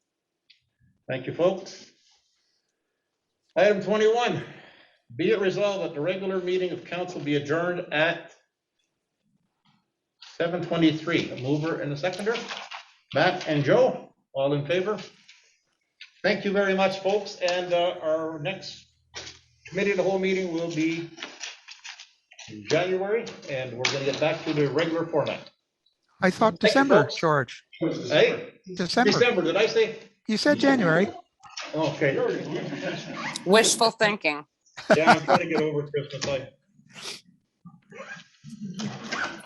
Thank you, folks. Item 21, be it resolved that the regular meeting of council be adjourned at 7:23. A mover and a seconder, Matt and Joe, all in favor? Thank you very much, folks, and uh, our next committee of the whole meeting will be in January, and we're going to get back to the regular format. I thought Thank you, December, folks. George. Hey, December. December, did I say? You said January. Okay. Wishful thinking. Yeah, I'm trying to get over Christmas. I